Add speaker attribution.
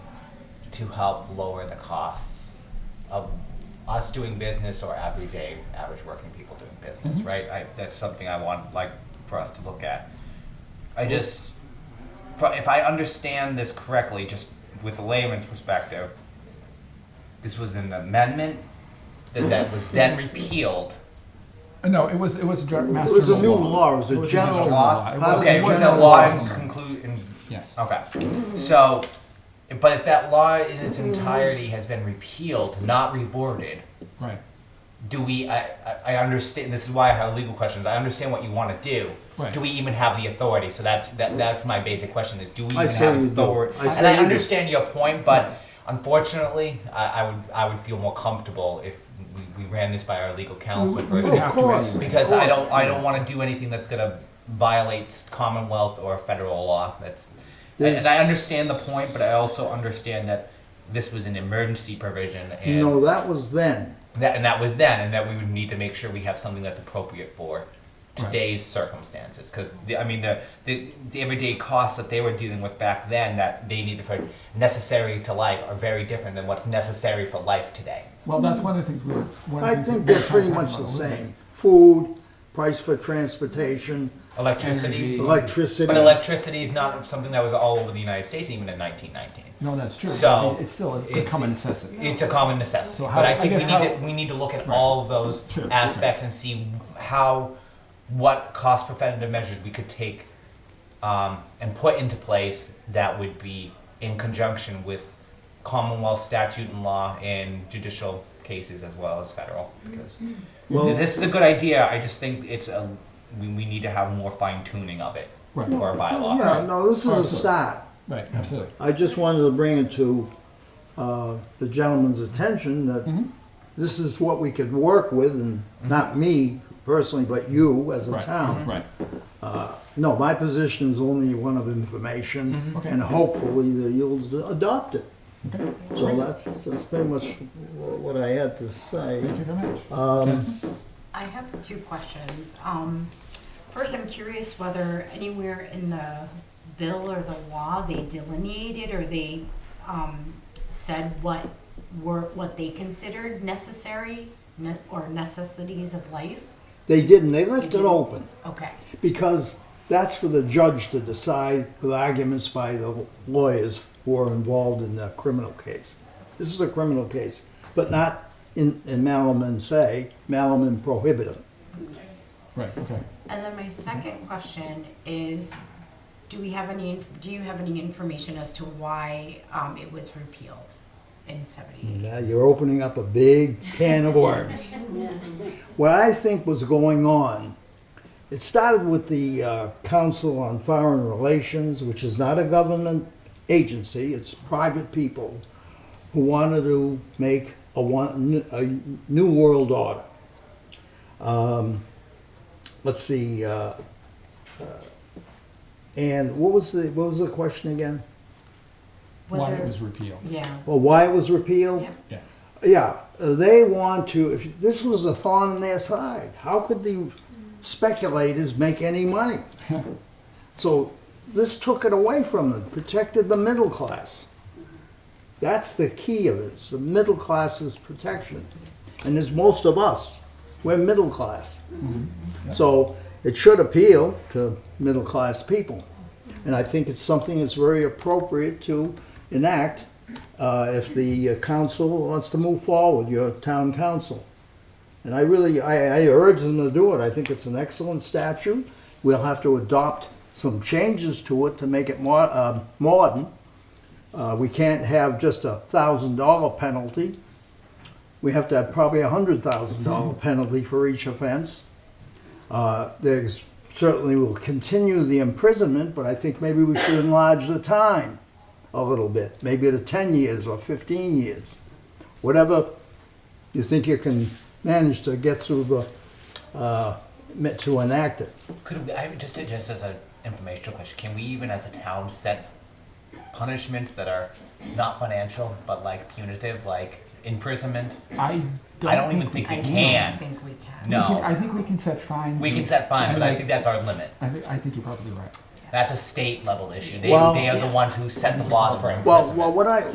Speaker 1: to help lower the costs of us doing business or everyday average working people doing business,
Speaker 2: Mhm.
Speaker 1: right? I, that's something I want like for us to look at. I just, fro- if I understand this correctly, just with a layman's perspective, this was an amendment that, that was then repealed.
Speaker 2: Uh, No, it was, it was a gen- mass
Speaker 3: was a
Speaker 2: general
Speaker 3: new law. It was a
Speaker 2: It was
Speaker 3: general
Speaker 2: mass
Speaker 3: law.
Speaker 2: It
Speaker 3: Part of
Speaker 2: wasn't-
Speaker 1: Okay,
Speaker 3: the
Speaker 1: was
Speaker 2: wasn't
Speaker 1: that
Speaker 3: general
Speaker 1: law in
Speaker 3: laws.
Speaker 1: conclu- in-
Speaker 2: Yes.
Speaker 1: Okay, so, but if that law in its entirety has been repealed, not reboarded,
Speaker 2: Right,
Speaker 1: do we, I, I- I understand, this is why I have legal questions, I understand what you wanna do.
Speaker 2: Right.
Speaker 1: Do we even have the authority? So that's, that, that's my basic question is, do we
Speaker 3: I
Speaker 1: even
Speaker 3: say
Speaker 1: have
Speaker 3: you do.
Speaker 1: authority?
Speaker 3: I say
Speaker 1: And I
Speaker 3: you do.
Speaker 1: understand your point, but unfortunately, I, I would, I would feel more comfortable if we, we ran this by our legal counsel first.
Speaker 2: we
Speaker 3: Of
Speaker 2: have to
Speaker 3: course,
Speaker 2: anyway.
Speaker 1: Because
Speaker 3: of
Speaker 1: I
Speaker 3: course.
Speaker 1: don't, I don't wanna do anything that's gonna violate Commonwealth or federal law, that's, and and I
Speaker 3: There's-
Speaker 1: understand the point, but I also understand that this was an emergency provision
Speaker 3: No,
Speaker 1: and
Speaker 3: that was then.
Speaker 1: that, and that was then, and that we would need to make sure we have something that's appropriate for today's circumstances, cause the, I mean, the, the, the everyday costs that they were dealing with back then that they needed for necessary to life are very different than what's necessary for life today.
Speaker 2: well, that's one of the things we were. one of the
Speaker 3: I
Speaker 2: things
Speaker 3: think
Speaker 2: we were
Speaker 3: they're pretty
Speaker 2: talking
Speaker 3: much the
Speaker 2: about a little bit.
Speaker 3: same. Food, price for transportation,
Speaker 1: Electricity,
Speaker 2: Energy.
Speaker 3: electricity.
Speaker 1: but electricity is not something that was all over the United States even in nineteen nineteen.
Speaker 2: No, that's true.
Speaker 1: So,
Speaker 2: I mean, It's still a- a
Speaker 1: it's-
Speaker 2: common necessity.
Speaker 1: It's a common necessity,
Speaker 2: So how-
Speaker 1: but I
Speaker 2: I
Speaker 1: think we
Speaker 2: guess
Speaker 1: need
Speaker 2: how-
Speaker 1: to we need to look at all of those
Speaker 2: Sure, okay.
Speaker 1: aspects and see how what cost preventative measures we could take um, and put into place that would be in conjunction with Commonwealth statute and law and judicial cases as well as federal. Because
Speaker 3: Well-
Speaker 1: this is a good idea. I just think it's a we, we need to have more fine tuning of it
Speaker 2: Right.
Speaker 1: for our bylaw.
Speaker 3: Yeah, no, this is a
Speaker 2: Absolutely.
Speaker 3: start.
Speaker 2: Right, absolutely.
Speaker 3: I just wanted to bring it to uh, the gentleman's attention that this is what we could work with, and not me personally, but you as a
Speaker 2: Right,
Speaker 3: town.
Speaker 2: Right,
Speaker 3: No, my position is only one of information,
Speaker 2: Okay.
Speaker 3: and hopefully that you'll adopt it.
Speaker 2: okay,
Speaker 3: So that's, that's pretty much what I had to say.
Speaker 2: thank you very much.
Speaker 4: I have two questions. Um, first, I'm curious whether anywhere in the bill or the law they delineated or they um, said what were what they considered necessary ne- or necessities of life.
Speaker 3: They didn't, they left it open,
Speaker 4: Okay.
Speaker 3: because that's for the judge to decide with arguments by the lawyers who are involved in the criminal case. This is a criminal case, but not in, in malum and se, malum and prohibitum.
Speaker 2: Right, okay.
Speaker 4: And then my second question is, do we have any? inf- Do you have any information as to why um, it was repealed in
Speaker 2: Mm.
Speaker 4: '78?
Speaker 3: Now uh, you're opening up a big can of worms. What I think was going on, it started with the uh, Council on Foreign Relations, which is not a government agency, it's private people who wanted to make a, one, a new world order. Um, let's see, uh, uh, and what was the what was the question again?
Speaker 2: Why it was repealed,
Speaker 4: Yeah.
Speaker 3: Well, why it was repealed?
Speaker 4: Yeah.
Speaker 2: yeah.
Speaker 3: Yeah, uh, they want to. If this was a thorn in their side, how could the speculators make any money? so this took it away from them, protected the middle class. That's the key of it. It's the middle class's protection, and as most of us, we're middle class. So it should appeal to middle class people, and I think it's something that's very appropriate to enact uh, if the uh, council wants to move forward, your town council. And I really, I, I urge them to do it. I think it's an excellent statute. We'll have to adopt some changes to it to make it more, um, modern. Uh, we can't have just a thousand dollar penalty. We have to have probably a hundred thousand dollar penalty for each offense. Uh, there's certainly will continue the imprisonment, but I think maybe we should enlarge the time a little bit, maybe to 10 years or 15 years, whatever you think you can manage to get through the, uh, me- to enact it.
Speaker 1: Could we, I, just just as an informational question, can we even as a town set punishments that are not financial but like punitive, like imprisonment?
Speaker 2: I
Speaker 1: I don't even
Speaker 2: we
Speaker 1: think we
Speaker 4: I
Speaker 1: can.
Speaker 4: don't think we can.
Speaker 1: No.
Speaker 2: We can- I think we can set fines.
Speaker 1: We can
Speaker 2: and-
Speaker 1: set fines, but I
Speaker 2: and
Speaker 1: think that's our limit.
Speaker 2: I think, I think you're probably right.
Speaker 1: That's a state level issue. They,
Speaker 3: Well-
Speaker 1: they are the ones who set the laws for imprisonment.
Speaker 3: Well, well, what I,